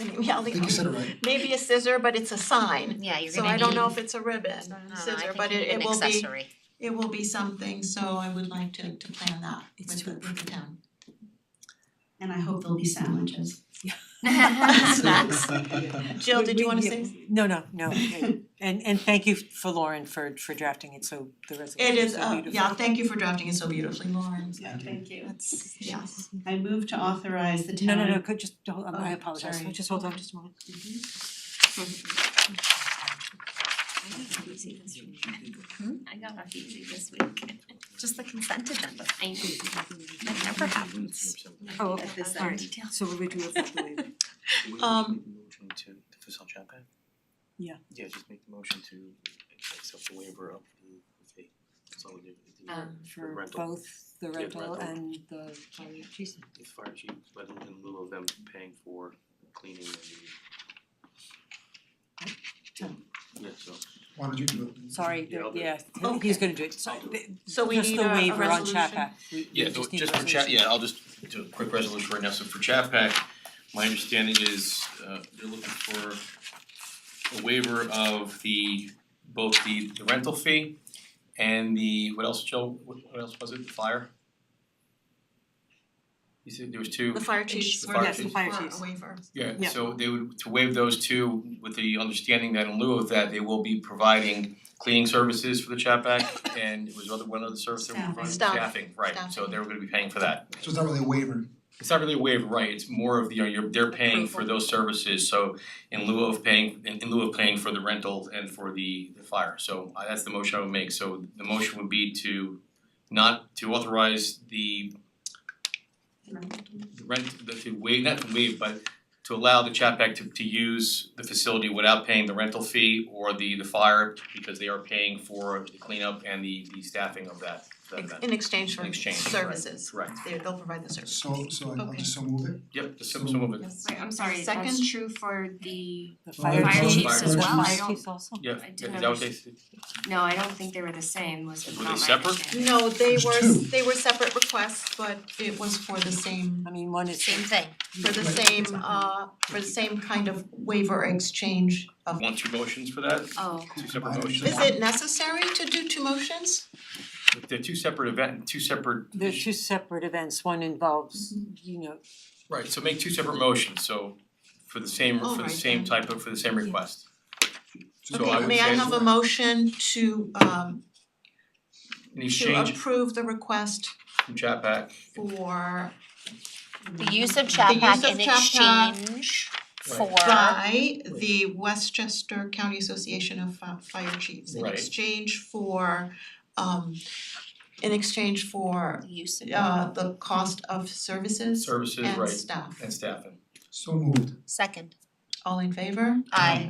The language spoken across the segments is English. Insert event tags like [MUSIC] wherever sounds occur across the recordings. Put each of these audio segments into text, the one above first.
Maybe think you said [LAUGHS] it right. Maybe a scissor, but it's a sign. Yeah, you're So gonna I need. don't know if it's a ribbon, No, no, no, I scissor, think but you it it need an will be, [LAUGHS] accessory. it will be something, so I would like to to plan that with the with the town. And I hope there'll be sandwiches. Snacks. Jill, We- did you we- wanna yeah, say? s- No, no, no, okay. and and thank you for Lauren for for drafting it so the It resolution is is, so uh, beautiful. yeah, thank you for drafting it so beautifully, Lauren. Yeah, thank you. That's, yes. I move to authorize the town. No, no, no, could just, hold on, I Oh, apologize, sorry. just hold on just a moment. I got off easy this week. Just the consent agenda. I know. That never happens. Oh, At okay, this alright, end. so we're going to affect the [LAUGHS] waiver. Um, Motion to the facade chat back? Yeah. Yeah, just make the motion to accept the waiver of the fee, consolidate the Um, the For rental. both the Yeah, rental rental. and the fire chief. The fire chief, but in lieu of them paying for cleaning and the. Tom. Yeah, so. [LAUGHS] Why don't you do it? Sorry, the- Yeah, I'll do it. yeah, he- Okay. he's gonna do it, so I'll do the- So we just need the a- a waiver on resolution? Chapac, we Yeah, we so just need just for chat, yeah, I'll just do a quick resolution right now, so for Chat Pack, my understanding is uh they're looking for a waiver of the both the the rental fee and the, what else, Joe, what what else was it, the fire? You said there was two, The fire chiefs The were fire looking chiefs. for Fire a chiefs. waiver. yeah, Yeah. so they would to waive those two with the understanding that in lieu of that, they will be providing cleaning services for the Chat Pack and it was other one other service they were providing, Staffing. staffing, right, so Staffing. they were gonna be paying for that. So it's not really a waiver. it's not really a waiver, right, it's more of the, you're, they're paying Mm-hmm. for those services, so in lieu of paying, in in lieu of paying for the rental and for the the fire, so uh, that's the motion I would make, so the motion would be to not, to authorize the the rent, the to waive, not to waive, but to allow the Chapac to to use the facility without paying the rental fee or the the fire, because they are paying for the cleanup and the the staffing of that, that Ex- event. In exchange for In exchange, right. services. Correct, They they'll provide the service. So so I- I'll Okay. just so move it. yep, just some some of it, Yes. Wait, I'm sorry, that's Second. true for the, The Fire fire chief. chiefs the as well. fire I don't- chiefs also. yeah, I is do that have what a- they said? no, I don't think they were the same, was Were they not my separate? understanding. No, they There's were, two. they were separate requests, but it was for the same, I mean, one is Same thing. for the Right. same, uh, for the same kind of waiver exchange of. Want two motions for that, Oh, two separate motions? Is it necessary to do two motions? They're two separate event, two separate. They're two separate events, one involves, you know, Right, so make two separate motions, so for the same, for Alright, the same then. type of, for the same request. So I Okay, would may I say- have a motion to um In to exchange approve the request from Chat Pack for The use of The chat use pack of in Chat Pack. exchange for by the Westchester County Association of Fi- Fire Chiefs in Right. exchange for um in exchange for the use of. uh the cost of services services, and right, staff. and staffing. So moved. Second. All in favor? Aye.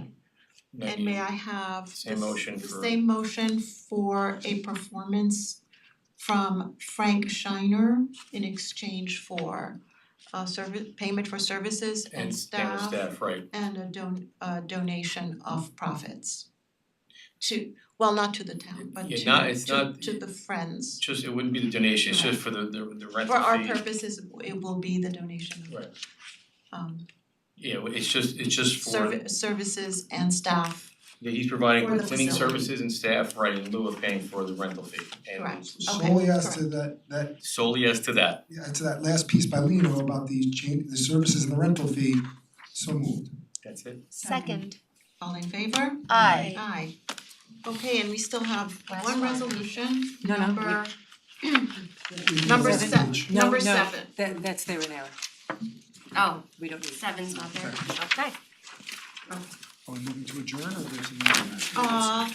Now And you- may I have Same the s- motion the for- same motion for a performance from Frank Shiner in exchange for uh service, payment for services and And payment of staff staff, right. and a don- a donation of profits to, well, not to the town, but Yeah, to not- it's to not- to the friends. It's Just, it wouldn't be the donation, it's just for the, the the rental For our fee. purposes, it will be the donation of Right. um Yeah, well, it's just, it's just for, servi- services and staff, yeah, he's providing For the cleaning facility. services and staff, right, in lieu of paying for the rental fee. And Correct. Okay, Solely as to that that Solely as to that, yeah, to that last piece by Lino about the change the services and the rental fee. So moved. that's it. Second. all in favor? Aye. Aye. Okay, and we still have Last one one. resolution, No, no, we- number, We need number that seven, page. No, number no. seven. that that's there in error, oh, we don't need it. seven's not there. Okay. Are we moving to adjourn or there's another? Uh,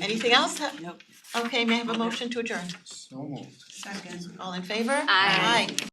anything else? Ha- Nope. Okay, may I have a motion to adjourn? So moved. Second. All in favor? Aye. Aye.